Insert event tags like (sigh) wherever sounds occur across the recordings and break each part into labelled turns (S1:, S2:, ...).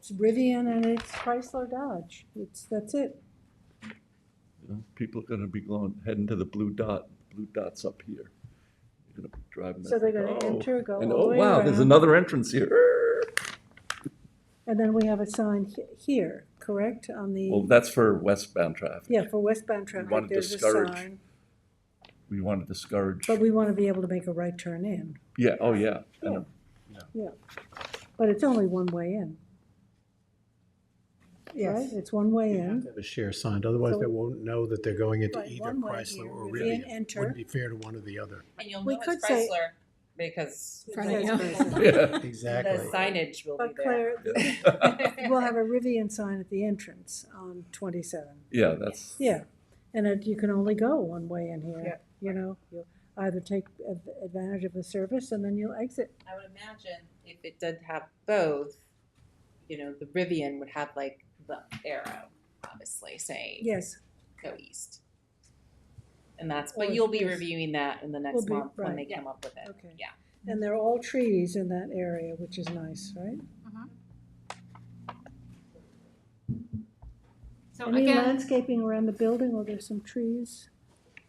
S1: it's Rivian and it's Chrysler Dodge. It's, that's it.
S2: You know, People are gonna be going, heading to the blue dot, blue dots up here. You're gonna be driving.
S1: So
S2: that,
S1: they're gonna
S2: oh,
S1: enter, go
S2: And
S1: all
S2: oh,
S1: the way
S2: wow, there's
S1: around.
S2: another entrance here.
S1: And then we have a sign he- here, correct, on
S2: Well,
S1: the,
S2: that's for westbound traffic.
S1: yeah, for westbound
S2: wanna
S1: traffic, there's a
S2: discourage-
S1: sign.
S2: We want to discourage,
S1: But we want to be able to make a right turn in,
S2: yeah, oh, yeah.
S1: (laughs)
S2: I know.
S1: yeah. But it's only one way in, right?
S3: Yes.
S1: It's one way
S3: You have
S1: in.
S3: to have a share signed, otherwise
S1: So-
S3: they won't know that they're going into
S1: Right,
S3: either
S1: one way
S3: Chrysler
S1: here,
S3: or
S1: Rivian,
S3: Rivian.
S1: enter.
S3: Wouldn't be fair to one or the other.
S4: And you'll
S1: We
S4: know
S1: could
S4: it's
S1: say-
S4: Chrysler because
S1: It
S4: the
S1: says
S2: (laughs)
S1: Chrysler.
S2: Yeah.
S3: Exactly.
S4: signage will be
S1: But
S4: there.
S1: Claire, we'll have a Rivian sign at the entrance on twenty-seven.
S2: Yeah, that's,
S1: Yeah, and it, you can only go one way in here,
S4: Yep.
S1: you know, you either take ad- advantage of the service and then you'll exit.
S4: I would imagine if it did have both, you know, the Rivian would have like the arrow, obviously saying
S1: Yes,
S4: go east. And that's,
S1: Or
S4: but you'll be
S1: east.
S4: reviewing that in the
S1: Will
S4: next
S1: be,
S4: month when they
S1: right.
S4: come up with it.
S1: okay.
S4: Yeah.
S1: And they're all trees in that area, which is nice, right?
S5: So
S1: Any
S5: again,
S1: landscaping around the building or there's some trees?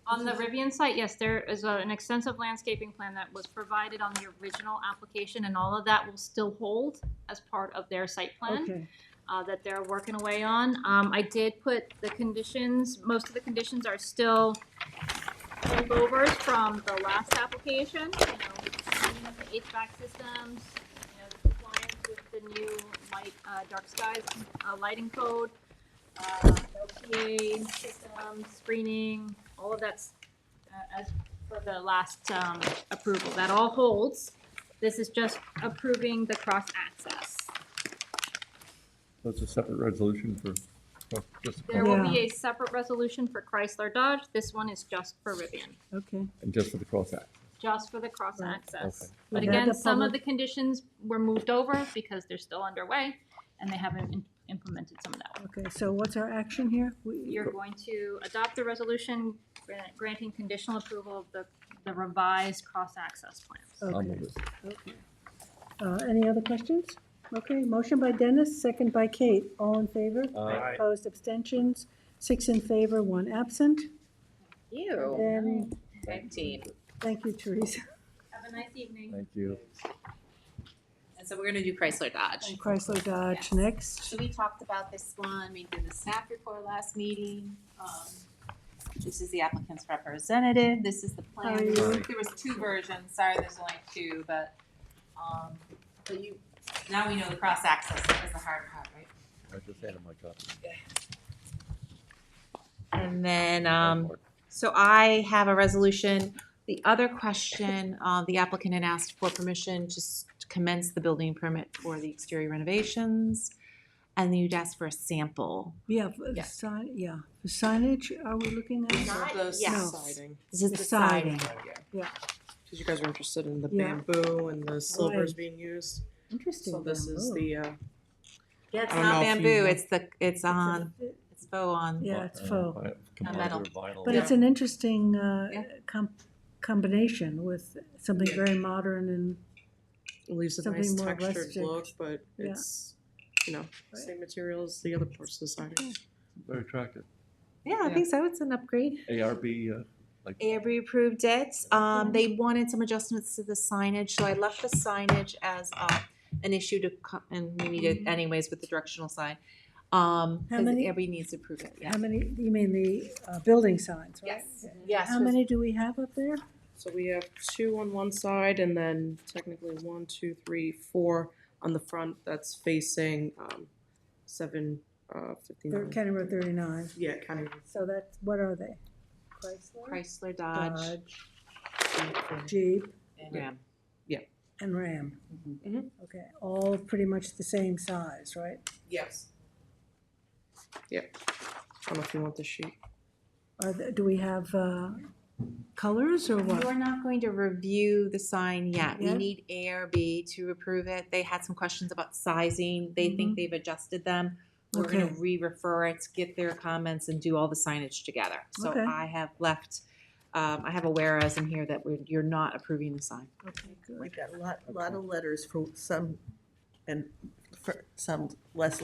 S5: on the Rivian site, yes, there is a- an extensive landscaping plan that was provided on the original application, and all of that will still hold as part of their site plan
S1: Okay,
S5: uh, that they're working away on. Um, I did put the conditions, most of the conditions are still holdovers from the last application, you know, cleaning up the HVAC systems, you know, compliance with the new light, uh, dark skies, uh, lighting code, uh, LPA system, screening, all of that's, uh, as for the last, um, approval, that all holds. This is just approving the cross-access.
S2: that's a separate resolution for, for just,
S5: There will be a separate resolution for Chrysler Dodge, this one is just for Rivian.
S1: okay.
S2: and just for the cross act.
S5: just for the cross
S1: Right.
S2: Okay.
S5: access. But
S1: Okay.
S5: again,
S1: The
S5: some of the
S1: public-
S5: conditions were moved over because they're still underway and they haven't im- implemented some of that.
S1: Okay, so what's our action here? We-
S5: You're going to adopt the resolution gran- granting conditional approval of the, the revised cross access plans.
S2: I'll
S1: Okay.
S2: move it.
S1: Uh, any other questions? Okay, motion by Dennis, second by Kate, all in favor?
S2: Aye.
S1: Opposed, abstentions, six in favor, one absent.
S5: Oh.
S4: You,
S1: Then,
S4: fifteen.
S1: thank you, Teresa,
S5: Have a nice evening.
S2: Thank you.
S4: And so we're gonna do Chrysler Dodge.
S1: and Chrysler Dodge uh, next.
S4: So we talked about this one, we did the staff report last meeting. Um, This is the applicant's representative, this is the plan.
S1: Hi.
S4: There was two versions, sorry, there's only two, but, um, but you, now we know the cross-access is the hard part, right?
S2: I just handed my copy.
S4: And then, um, so I have a resolution. The other question, uh, the applicant had asked for permission to s- to commence the building permit for the exterior renovations. And then you'd asked for a sample.
S1: Yeah, for the
S4: Yeah.
S1: sign, yeah, the signage, are we looking at?
S4: Not those
S1: Yeah.
S6: siding,
S4: This is
S1: The
S4: the siding.
S6: because you guys were interested in the
S1: Yeah.
S6: bamboo and the silvers
S1: Right.
S6: being used.
S1: Interesting. Oh.
S6: So this is
S1: bamboo.
S6: the, uh,
S4: Yeah, it's
S6: I don't
S4: not
S6: know if
S4: bamboo,
S6: you-
S4: it's the, it's on,
S1: It's
S4: it's faux on.
S1: a- Yeah, it's faux,
S4: metal.
S1: but it's an interesting, uh,
S4: Yeah.
S1: com- combination with something
S6: Yeah.
S1: very modern and,
S6: it leaves a
S1: Something
S6: nice
S1: more
S6: textured
S1: rustic.
S6: look, but
S1: Yeah.
S6: it's, you know, same materials, the other parts of the siding.
S2: Very attractive.
S4: Yeah, I think so, it's an upgrade.
S2: ARB, uh, like.
S4: Avery approved it. Um, they wanted some adjustments to the signage, so I left the signage as, uh, an issue to co- and we need it anyways with the directional sign. Um,
S1: How
S4: cause
S1: many-
S4: Avery needs to approve it, yeah.
S1: how many, you mean the, uh, building signs, right?
S4: yes.
S1: How many do we have up there?
S6: So we have two on one side and then technically one, two, three, four on the front that's facing, um, seven, uh,
S1: They're
S6: fifty-nine.
S1: County Road thirty-nine,
S6: Yeah, kind
S1: so that's, what are they? Chrysler?
S4: Chrysler Dodge
S6: of.
S1: Jeep
S4: and Ram.
S1: and Ram.
S4: Mhm.
S6: Mhm.
S1: Okay, all pretty much the same size, right?
S6: Yes. Yep. I don't know if you want the sheet.
S1: Are, the- do we have, uh, colors or what?
S4: You're not going to review the sign yet. We
S1: Yeah.
S4: need ARB to approve it. They had some questions about sizing. They think they've adjusted them. We're
S1: Mm-hmm.
S4: gonna
S1: Okay.
S4: re-refer it, get their comments and do all the signage together. So
S1: Okay.
S4: I have left, um, I have a whereas in here that we're, you're not approving the sign.
S1: Okay, good.
S7: We've got a lot, lot of letters for some, and for some less